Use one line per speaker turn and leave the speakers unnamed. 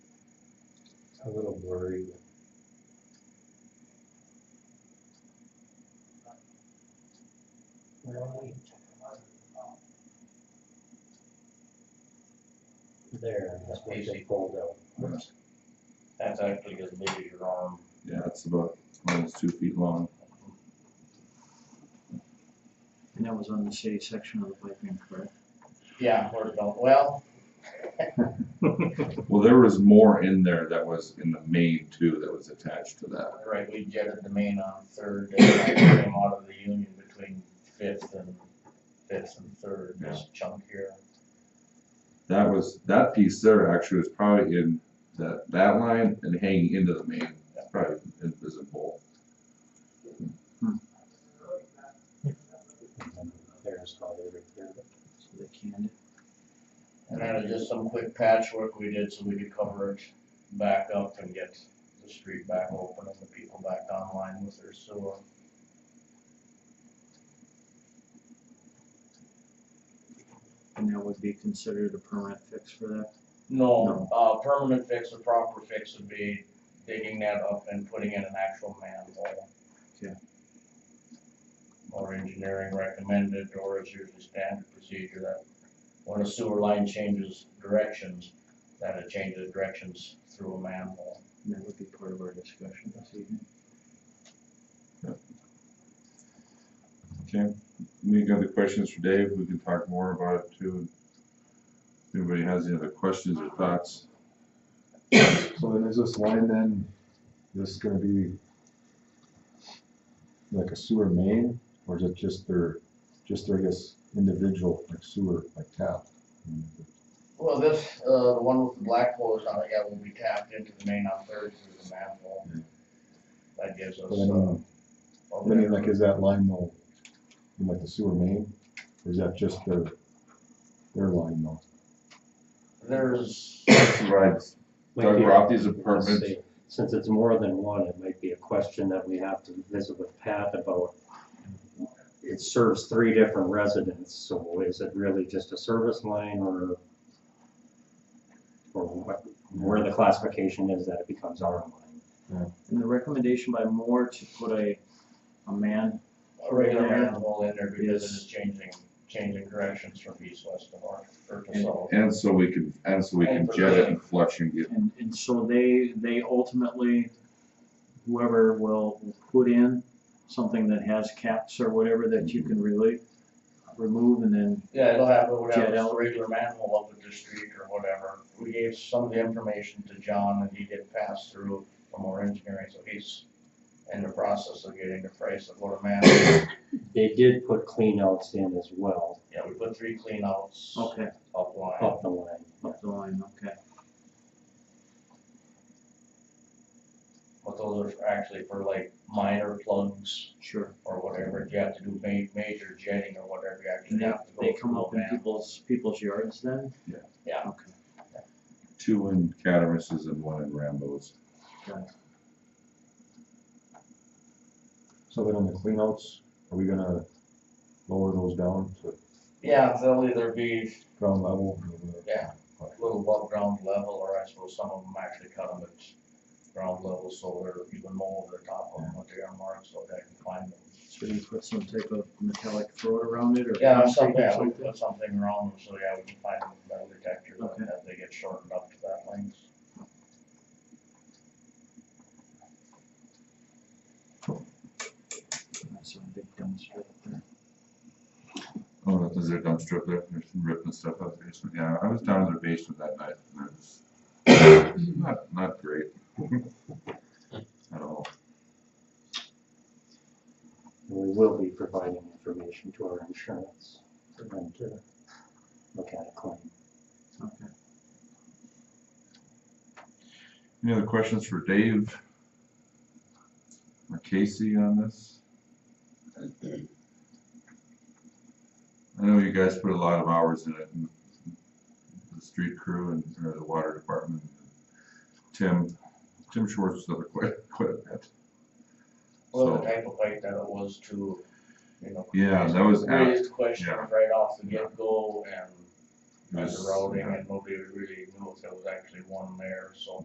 a little blurry. There, that's what they pulled out.
That's actually as big as your arm.
Yeah, it's about almost two feet long.
And that was on the shady section of the piping, correct?
Yeah, where it don't, well,
Well, there was more in there that was in the main too that was attached to that.
right, we jetted the main on third, and I came out of the union between fifth and, fifth and third, this chunk here.
That was, that piece there actually was probably in that, that line and hanging into the main, It's probably invisible.
There's probably right there.
So they canned it.
And that is just some quick patchwork we did so we could cover it back up and get the street back open and the people back online with their sewer.
And that would be considered a permanent fix for that?
No, uh, permanent fix, a proper fix would be digging that up and putting in an actual manhole.
Okay.
Or engineering recommended, or it's usually standard procedure that when a sewer line changes directions, that it changes directions through a manhole.
And that would be part of our discussion this evening.
Okay, any other questions for Dave? We can talk more about it too. If anybody has any other questions or thoughts?
So then is this line then, this gonna be like a sewer main, or is it just their, just their, I guess, individual like sewer, like tap?
Well, this, uh, the one with the black hose on it, yeah, will be tapped into the main on third through the manhole. That gives us,
But I mean,
uh. a
I mean, like, is that line though, in, like the sewer main, or is that just their, their line though?
There's,
Provides
Might
Doug
be-
Rothy's apartment.
let's see, Since it's more than one, it might be a question that we have to visit with Pat about. It serves three different residents, so is it really just a service line or? Or what, where the classification is that it becomes our line?
And the recommendation by Moore to put a, a man,
a regular
Yeah.
manhole in there because it
Yes.
is changing, changing directions from east, west to north, or to
And-
south.
And so we can, and so we can jet it and flush and get,
and, and so they, they ultimately, whoever will put in something that has caps or whatever that you can really remove and then
Yeah, it'll have, it'll have
Jet
a
out.
regular manhole up at the street or whatever. We gave some of the information to John and he did pass through from our engineering, so he's in the process of getting the price of what a manhole.
They did put cleanouts in as well,
Yeah, we put three cleanouts
Okay, Oh.
up line.
up the line.
up the line, okay.
But those are actually for like minor plugs
Sure.
or whatever. If you have to do ma- major jetting or whatever, you
And
actually
they,
have to go
they come
through a
up in
manhole.
people's, people's yards then?
Yeah.
Yeah.
Okay.
two in Catamis's and one in Rambo's.
So then on the cleanouts, are we gonna lower those down to
Yeah, they'll either be
ground level?
Yeah. little above ground level, or I suppose some of them actually cut them at ground level, so they're even more over the top of them with the marks, so they can find them.
So you put some type of metallic throat around it or?
Yeah,
concrete
something,
or
yeah, we
something?
put something around them, so yeah, we can find them with metal detectors,
Okay.
and that they get shortened up to that length.
That's some big dumpster up there.
Oh, that is their dumpster up there, there's some ripping stuff up there, so, yeah, I was down in their basement that night, and it's not, not great. At all.
And we will be providing information to our insurance for them to look at a claim.
Okay.
Any other questions for Dave? Or Casey on this? I know you guys put a lot of hours in it, and the street crew and, or the water department. Tim, Tim Schwartz does it quite, quite a bit.
Well, the
So,
type of fight that it was to, you know.
yeah, that was, apt.
Raised questions
yeah.
right off the get-go and
It
the
was-
routing, and nobody really knew if there was actually one there, so.